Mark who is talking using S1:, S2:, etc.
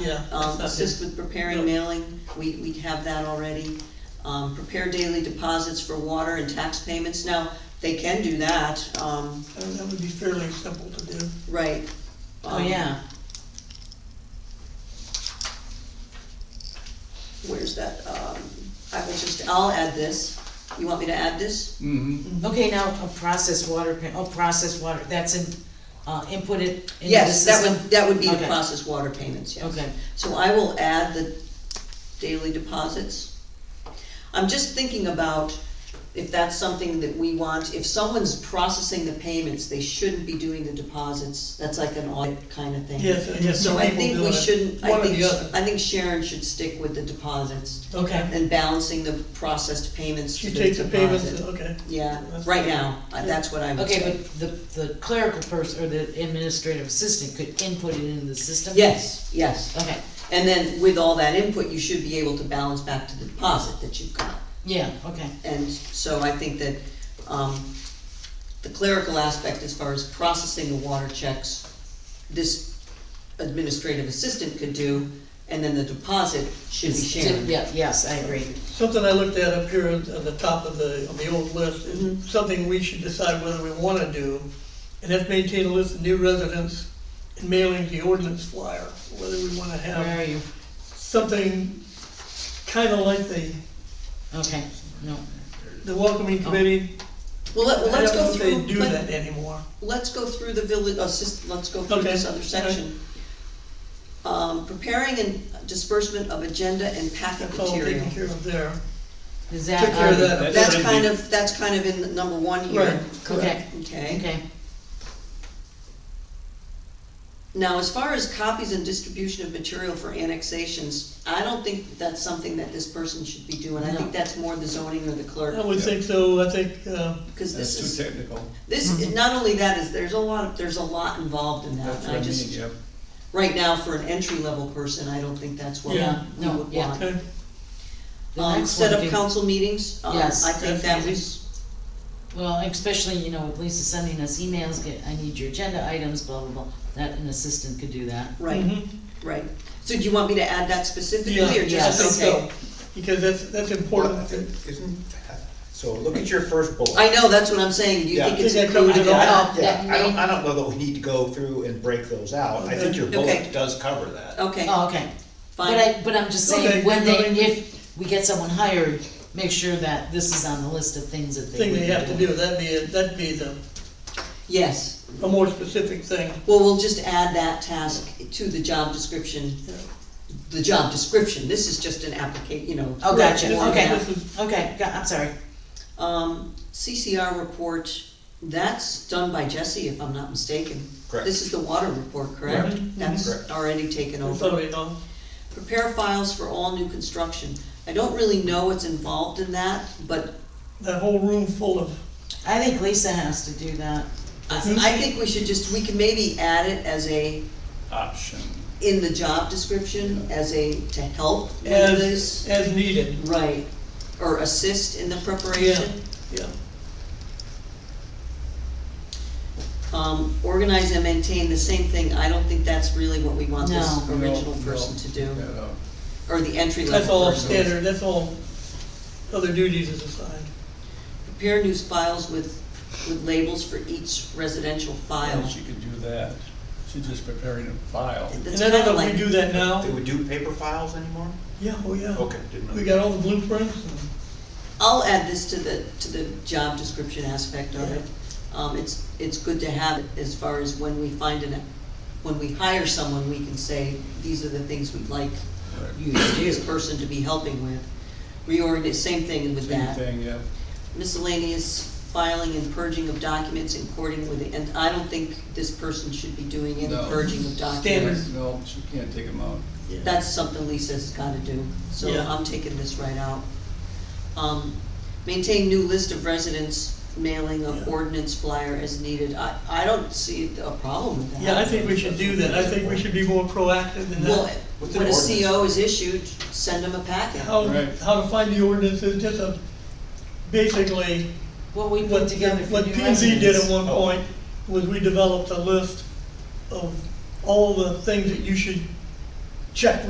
S1: Yeah, that's
S2: Um,
S1: not
S2: assist with preparing
S1: Yep.
S2: mailing, we, we have that already. Um, prepare daily deposits for water and tax payments, now, they can do that, um,
S1: That would- that would be fairly simple to do.
S2: right.
S3: Oh,
S2: Um,
S3: yeah,
S2: Where's that, um, I will just, I'll add this, you want me to add this?
S4: Mm-hmm.
S3: okay, now, uh, process water, pa- oh, process water, that's in, uh, inputted into the
S2: Yes, that
S3: system?
S2: would, that would be to
S3: Okay.
S2: process water payments, yes.
S3: Okay,
S2: So I will add the daily deposits. I'm just thinking about if that's something that we want, if someone's processing the payments, they shouldn't be doing the deposits. That's like an audit kind of thing.
S1: Yes, I guess some
S2: So I
S1: people
S2: think
S1: do
S2: we
S1: it.
S2: shouldn't, I
S1: One or
S2: think,
S1: the other.
S2: I think Sharon should stick with the deposits
S1: Okay,
S2: and balancing the processed payments to
S1: she
S2: the
S1: takes the payments,
S2: deposit.
S1: okay.
S2: Yeah,
S1: That's
S2: right
S1: good.
S2: now, uh, that's what I would
S3: okay,
S2: say.
S3: but the, the clerical person, or the administrative assistant could input it into the system?
S2: Yes, yes.
S3: Okay,
S2: And then with all that input, you should be able to balance back to the deposit that you've got.
S3: yeah, okay,
S2: And so I think that, um, the clerical aspect as far as processing the water checks, this administrative assistant could do, and then the deposit should be shared.
S3: yeah, yes, I agree,
S1: Something I looked at up here at at the top of the, of the old list,
S2: Mhm.
S1: is something we should decide whether we wanna do, and that's maintain a list of new residents and mailing the ordinance flyer, whether we wanna
S3: where
S1: have
S3: are you?
S1: something kinda like the,
S3: Okay, no,
S1: the welcoming committee.
S2: Well, let, Oh. well,
S1: I
S2: let's
S1: don't know
S2: go
S1: if
S2: through.
S1: they do
S2: let-
S1: that anymore.
S2: Let's go through the village, assist, let's go through
S1: Okay,
S2: this other section. Um, preparing and disbursement of agenda and packet
S1: That's all
S2: material. um,
S1: taken care of there.
S3: is
S1: Took care of
S3: that, um,
S1: that.
S4: That's
S2: That's
S4: in
S2: kind
S4: the-
S2: of, that's kind of in the number one
S1: Right.
S2: here.
S3: okay,
S2: Okay.
S3: okay,
S2: Now, as far as copies and distribution of material for annexations, I don't think that's something that this person should be doing. I think
S3: No.
S2: that's more the zoning or the
S1: I
S2: clerk,
S1: would think so, I think, uh,
S2: because this
S4: That's too
S2: is,
S4: technical.
S3: Mm-hmm.
S2: this, not only that, is there's a lot, of there's a lot involved in that.
S4: That's
S2: And
S4: what
S2: I
S4: I mean,
S2: just,
S4: yep.
S2: right now, for an entry-level person, I don't think that's what we
S1: Yeah,
S2: we
S3: no,
S2: would
S3: yeah.
S2: want.
S1: okay,
S3: The
S2: Um,
S3: next
S2: set
S3: one
S2: up
S3: could-
S2: council meetings, um, I
S3: Yes,
S2: think that
S1: definitely.
S2: was,
S3: well, especially, you know, with Lisa sending us emails, get, I need your agenda items, blah, blah, blah, that, an assistant could do that.
S2: right,
S1: mhm.
S2: right. So do you want me to add that specifically,
S1: Yeah,
S2: or
S1: I think
S2: just, okay?
S1: so, because that's, that's
S5: Well, I
S1: important.
S5: think it's- So look at your first bullet.
S2: I know, that's what I'm saying. Do you
S5: Yeah.
S2: think it's
S1: I think I covered
S2: included?
S1: it
S2: in
S1: all.
S2: that?
S5: I don't, yeah, I don't,
S3: may-
S5: I don't know that we need to go through and break those out, I think your
S2: Okay.
S5: bullet does cover that.
S2: Okay,
S3: Oh, okay,
S2: fine.
S3: but I, but I'm just
S1: Okay,
S3: saying, when
S1: no,
S3: they,
S1: I-
S3: if we get someone hired, make sure that this is on the list of things that they
S1: Thing
S3: would
S1: they
S3: be
S1: have to
S3: doing.
S1: do, that'd be, that'd be the,
S2: Yes,
S1: a more specific thing.
S2: well, we'll just add that task to the job description, the job description, this is just an application, you know.
S3: Oh, gotcha,
S1: This is-
S3: okay,
S1: this is-
S3: okay, go- I'm sorry,
S2: Um, CCR report, that's done by Jesse, if I'm not mistaken.
S5: Correct. Mm-hmm.
S2: This is the water report, correct?
S1: Correct.
S2: That's
S5: Correct.
S2: already taken
S1: That's
S2: over.
S1: already done.
S2: Prepare files for all new construction, I don't really know what's involved in that, but
S1: That whole room full of,
S3: I think Lisa has to do that,
S2: I I think we should just, we can maybe add it as a,
S4: Option.
S2: in the job description, as a, to help with this.
S1: as, as needed,
S2: Right, or assist in the preparation.
S1: yeah.
S2: Um, organize and maintain, the same thing, I don't think that's really what we want this
S3: No.
S2: original
S4: No, no,
S2: person to do,
S4: no, no.
S2: or the entry
S1: That's
S2: level
S1: all
S2: person.
S1: standard, that's all other duties is assigned.
S2: Prepare news files with, with labels for each residential file.
S4: She could do that. She's just preparing a file.
S2: That's
S1: And I don't
S2: kinda
S1: know if
S2: like,
S1: we do that now.
S5: Do we do paper files anymore?
S1: Yeah, oh yeah.
S5: Okay, didn't know.
S1: We got all the blueprints and.
S2: I'll add this to the, to the job description aspect of it. Um, it's, it's good to have it as far as when we find an, when we hire someone, we can say, these are the things we'd like you, this person to be helping with. Reorganize, same thing with
S4: Same
S2: that.
S4: thing, yeah.
S2: Miscellaneous filing and purging of documents in according with, the- and I don't think this person should be doing any
S4: No.
S2: purging of
S1: Standard.
S2: documents.
S4: No, she can't take them out.
S2: That's something Lisa's gotta do, so
S1: Yeah.
S2: I'm taking this right out. Um, maintain new list of residents, mailing of
S1: Yeah.
S2: ordinance flyer as needed, I, I don't see a problem with that.
S1: Yeah, I think we should do that, I think we should be more proactive in
S2: Well,
S1: that.
S5: With
S2: when a
S5: an ordinance.
S2: CO is issued, send them a packet.
S1: How,
S4: Right.
S1: how to find the ordinances, just a, basically,
S3: what we put
S1: What,
S3: together for
S1: what
S3: new
S1: P and Z did at
S3: residents.
S1: one point was we developed a list of all the things that you should check